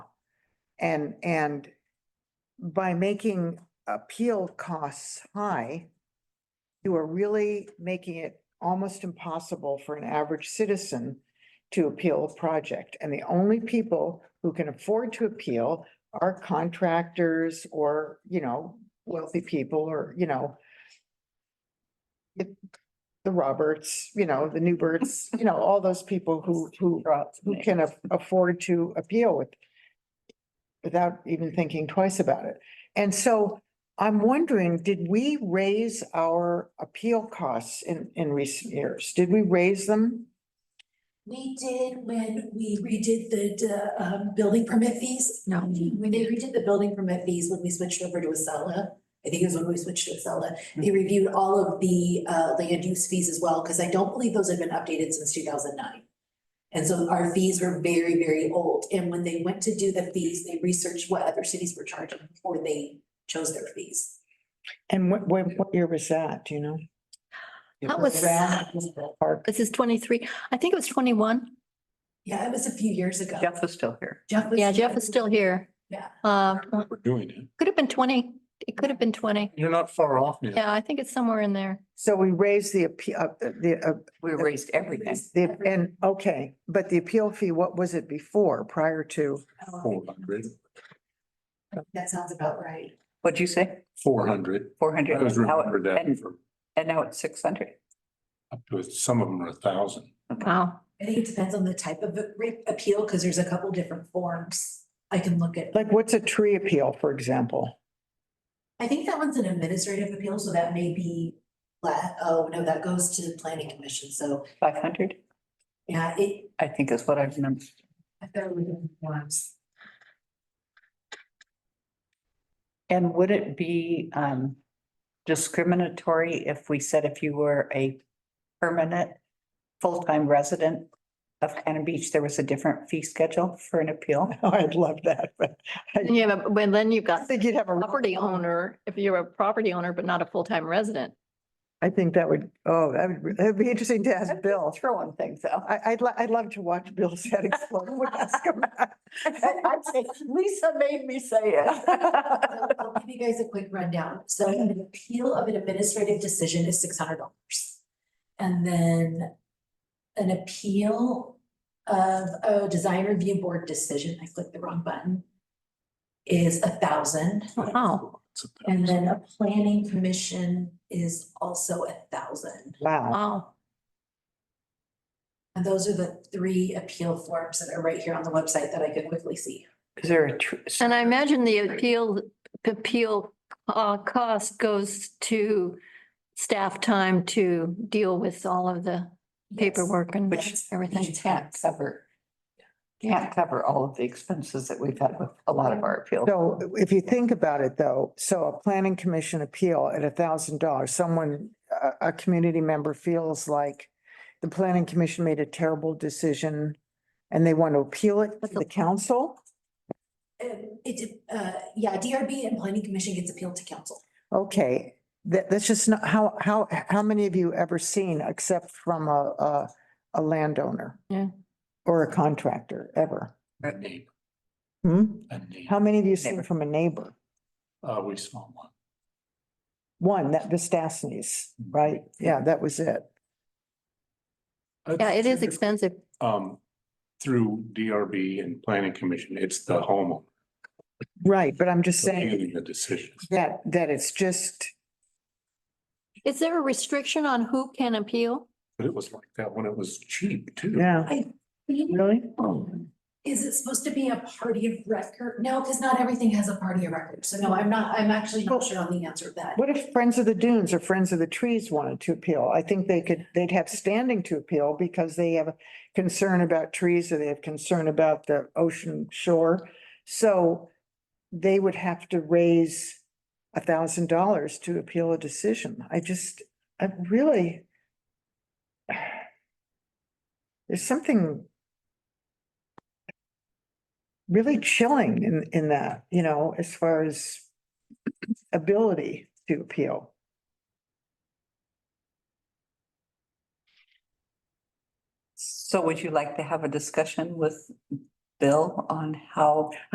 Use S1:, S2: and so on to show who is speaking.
S1: And, and by making appeal costs high, you are really making it almost impossible for an average citizen to appeal a project. And the only people who can afford to appeal are contractors or, you know, wealthy people or, you know, it- the Roberts, you know, the Newberts, you know, all those people who, who, who can af- afford to appeal with without even thinking twice about it. And so I'm wondering, did we raise our appeal costs in, in recent years? Did we raise them?
S2: We did when we redid the, uh, um, building permit fees. No. When they redid the building permit fees, when we switched over to Acela, I think it was when we switched to Acela, they reviewed all of the, uh, land use fees as well, because I don't believe those had been updated since two thousand nine. And so our fees were very, very old, and when they went to do the fees, they researched what other cities were charging before they chose their fees.
S1: And what, what, what year was that, do you know?
S3: That was-
S1: Park,
S3: This is twenty-three. I think it was twenty-one.
S2: Yeah, it was a few years ago.
S4: Jeff is still here.
S2: Jeff was.
S3: Yeah, Jeff is still here.
S2: Yeah.
S3: Uh,
S5: We're doing it.
S3: could have been twenty. It could have been twenty.
S5: You're not far off now.
S3: Yeah, I think it's somewhere in there.
S1: so we raised the appeal, uh, the, uh,
S4: We raised everything.
S1: the, and, okay, but the appeal fee, what was it before, prior to?
S5: Four hundred,
S2: "Oh, That sounds about right.
S4: What'd you say?
S5: four hundred.
S4: Four
S5: I
S4: hundred?
S5: always remember that
S4: And
S5: for
S4: and now it's six hundred.
S5: up to, some of them are a thousand.
S3: Wow.
S2: I think it depends on the type of re- appeal, because there's a couple different forms I can look at.
S1: Like, what's a tree appeal, for example?
S2: I think that one's an administrative appeal, so that may be, la- oh, no, that goes to the planning commission, so,
S4: Five hundred,
S2: yeah, it,
S4: I think is what I remember.
S2: I've got to look at the forms.
S4: And would it be um discriminatory if we said if you were a permanent full-time resident of Cannon Beach, there was a different fee schedule for an appeal?
S1: Oh, I'd love that, but
S3: Yeah, but but then you've
S1: I
S3: got the
S1: think you'd have a.
S3: property owner, if you're a property owner, but not a full-time resident.
S1: I think that would, oh, that would, that'd be interesting to ask Bill.
S4: Throwing things out.
S1: I, I'd, li- I'd love to watch Bill's head explode. when I ask him that.
S4: I'd say, Lisa made me say
S2: So
S4: it.
S2: I'll give you guys a quick rundown. So an appeal of an administrative decision is six hundred dollars. And then an appeal of a design review board decision, I clicked the wrong button, is a thousand.
S5: Oh,
S3: Oh, Wow.
S5: It's a thousand.
S2: And then a planning commission is also a thousand.
S1: Wow,
S3: Wow.
S2: And those are the three appeal forms that are right here on the website that I could quickly see.
S4: Is there a tr-
S3: And I imagine the appeal, appeal uh, cost goes to staff time to deal with all of the paperwork and
S4: Which
S3: everything.
S4: You can't cover. Can't cover all of the expenses that we've had with a lot of our appeals.
S1: so if you think about it though, so a planning commission appeal at a thousand dollars, someone, a, a community member feels like the planning commission made a terrible decision and they want to appeal it to the council?
S2: Yes. Um, it, did- uh, yeah, DRB and planning commission gets appealed to council.
S1: Okay, that, that's just not, how, how, how many of you ever seen except from a, a, a landowner?
S3: Yeah.
S1: Or a contractor, ever?
S5: A neighbor,
S1: Hmm?
S5: a neighbor.
S1: How many of you seen
S4: Neighbor.
S1: from a neighbor?
S5: Uh, we saw one.
S1: One, that Vistasnes, right? Yeah, that was it.
S5: I'd
S3: Yeah, it is
S5: say,
S3: expensive.
S5: Um, through DRB and planning commission, it's the homeowner
S1: Right, but I'm just saying
S5: making the decision.
S1: that, that it's just,
S3: Is there a restriction on who can appeal?
S5: But it was like that when it was cheap too.
S1: yeah. Really?
S2: Is it supposed to be a party of record? No, because not everything has a party of record. So no, I'm not, I'm actually not sure on the answer to that.
S1: What if Friends of the Dunes or Friends of the Trees wanted to appeal? I think they could, they'd have standing to appeal because they have a concern about trees or they have concern about the ocean shore. So they would have to raise a thousand dollars to appeal a decision. I just, I really there's something really chilling in, in that, you know, as far as ability to appeal.
S4: So would you like to have a discussion with Bill on how